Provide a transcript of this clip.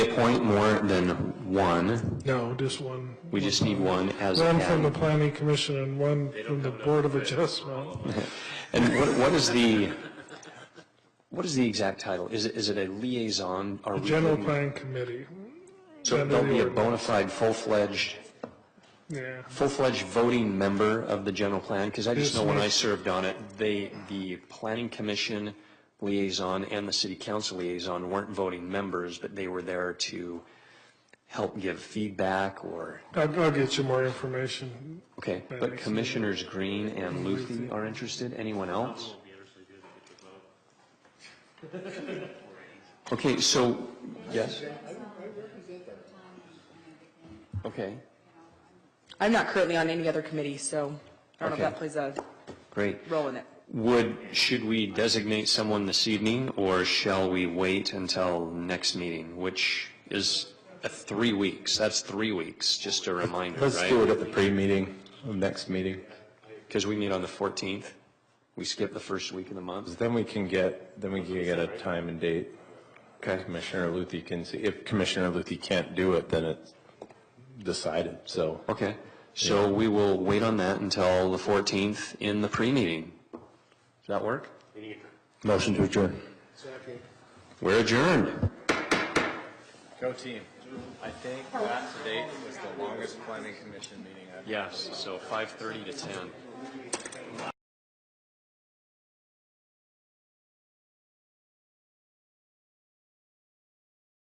appoint more than one. No, just one. We just need one as a One from the category. planning commission and one from the board of adjustment. And what, what is the, what is the exact title? Is it, is it a liaison? Are we General doing- plan committee, So under they'll the be a ordinance. bona fide, full-fledged, yeah. full-fledged voting member of the general plan? Because I just Yes, know when I yes. served on it, they, the planning commission liaison and the city council liaison weren't voting members, but they were there to help give feedback or, I'll, I'll get you more information. okay. Right, But I see. Commissioners Green and Luthy are interested? Anyone else? Okay, so, yes? Okay. I'm not currently on any other committee, so I don't know if Okay. that plays a Great. role in it. Would, should we designate someone this evening, or shall we wait until next meeting, which is uh, three weeks? That's three weeks, just a reminder, right? Let's do it at the pre-meeting, the next meeting. Because we meet on the 14th. We skip the first week of the month. Then we can get, then we can get a time and date. Okay. Commissioner Luthy can see, if Commissioner Luthy can't do it, then it's decided, so. Okay, so we will wait on that until the 14th in the pre-meeting. Does that work? Motion to adjourn. We're adjourned. Go team. I think that today was the longest planning commission meeting I've Yes, so 5:30 to 10.